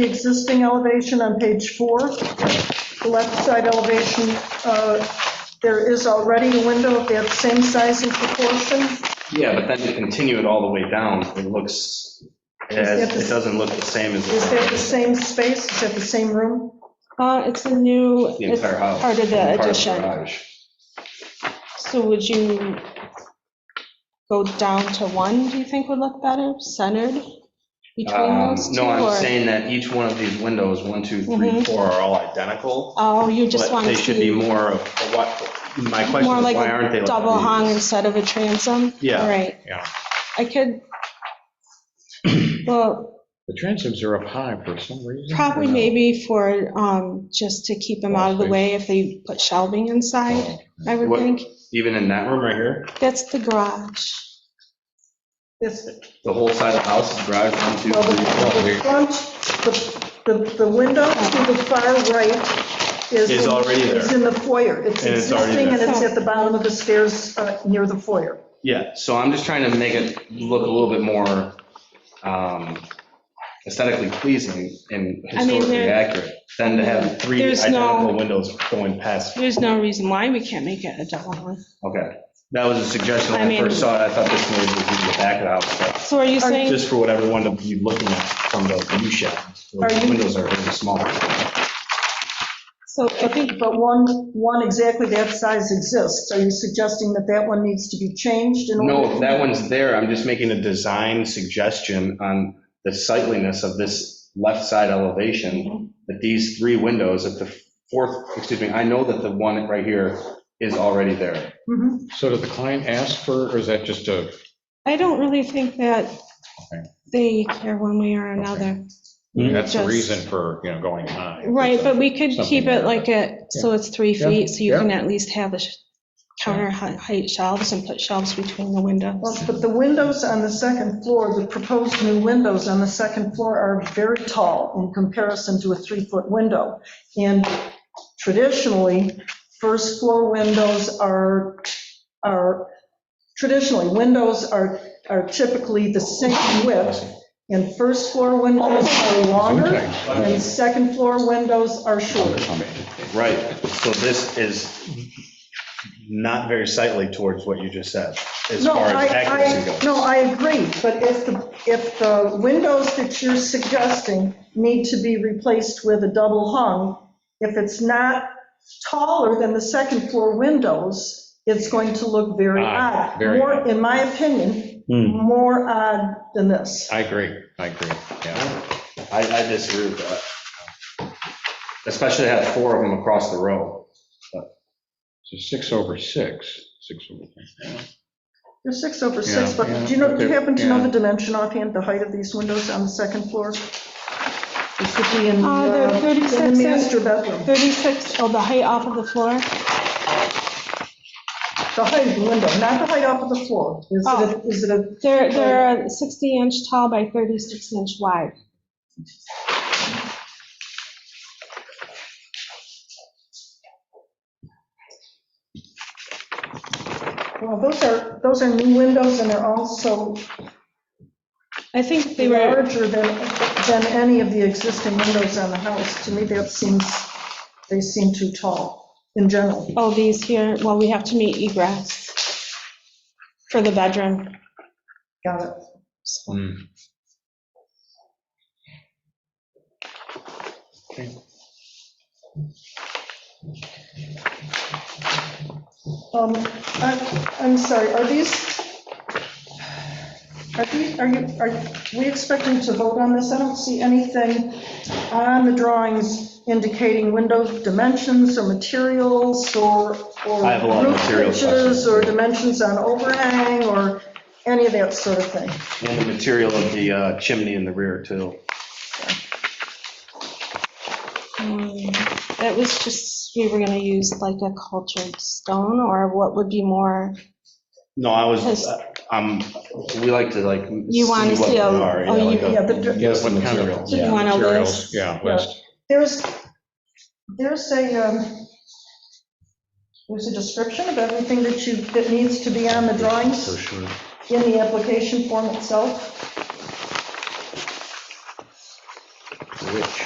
the existing elevation on page four, the left side elevation, uh, there is already a window of that same size and proportion. Yeah, but then to continue it all the way down, it looks, as- it doesn't look the same as Is that the the same space? Is that the same room? Uh, it's a new, the it's entire house. part of part the of the addition. garage. So would you go down to one, do you think would look better, centered between Um, those two? No, I'm or- saying that each one of these windows, one, two, three, Mhm. four, are all identical. Oh, you just but want They it should to be be more of, a what, my question more is, like why aren't they a like double hung these? instead of a transom? Yeah, Right. yeah. I could, well, The transoms are up high for some reason. probably or no? maybe for, um, just to keep them out of the way if they put shelving inside, Oh, I would What- think. Even in that room right here, That's the garage. It's, the whole side of the house is garage, one, two, well, the three, four. the front, the- the, the window to the far right is. Is in- already there. It's in the foyer. It's And it's already existing and there. it's at the bottom of the stairs uh, near the foyer. Yeah, so I'm just trying to make it look a little bit more um, aesthetically pleasing and I mean, historically there- accurate than to have three There's no- identical windows going past. There's no reason why we can't make it a double hung. Okay, that was a suggestion I when I mean- first saw it. I thought this noise was in the back of the house, but So are you Are- saying, just for whatever one to be looking at from the view shed. Are The you- windows are really small. so I think, But one, one exactly that size exists. Are you suggesting that that one needs to be changed in order? No, if that one's there, I'm just making a design suggestion on the sightliness of this left side Mm-hmm. elevation, that these three windows at the fourth, excuse me, I know that the one right here is already there. Mhm. So did the client ask for, or is that just a, I don't really think that they care one way or another. that's the Just- reason for, you know, going high? Right, but we could keep it like a, so it's three Yeah. feet, so you Yeah. can at least have the sh- counter hei- height shelves and put shelves between the Well, windows. But the windows on the second floor, the proposed new windows on the second floor are very tall in comparison to a three-foot window. And traditionally, first floor windows are, are, traditionally, windows are, are typically the same width. And first floor windows are longer and second floor windows are shorter. Right, so this is not very sightly towards what you just said, as No, far I, as accuracy I, goes. no, I agree, but if the, if the windows that you're suggesting need to be replaced with a double hung, if it's not taller than the second floor windows, it's going to look very Odd, odd. Ah, very More, odd. in my opinion, Hmm. more odd than this. I agree, I agree, yeah. I, I disagree with that. Especially have four of them across the row. So six over six, six over. You're six over six, Yeah, but yeah, do you know, do you okay, happen to know yeah. the dimension offhand, the height of these windows on the second floor? It should be in, Uh, they're uh, in 36 the and- master bedroom, 36, oh, the height off of the floor? the height of the window, not the height off of the floor. Is it, Oh. a- is it a They're, they're 60 inch tall by 36 inch wide. Well, those are, those are new windows, and they're also I think they were, larger than, than any of the existing windows on the house. To me, that seems, they seem too tall in general. oh, these here, well, we have to meet egress for the bedroom. Got it. Mm. Um, I- I'm sorry, are these, are these, are you, are we expecting to vote on this? I don't see anything on the drawings indicating window dimensions or materials or, or I have a lot of roof material pitches questions. or dimensions on overhang or any of that sort of thing. And the material of the uh, chimney in the rear, too. Um, That was just, we were gonna use like a cultured stone or what would be more, No, I was, Has- um, we like to like. You wanna what see a- they are, oh, yeah, like you- a- Yeah, the- Give us the What kind of- materials. you want a list? Materials, Yeah, list. There's, there's a, um, there's a description of everything that you, that needs to be on the For drawings sure. in the application form itself. which.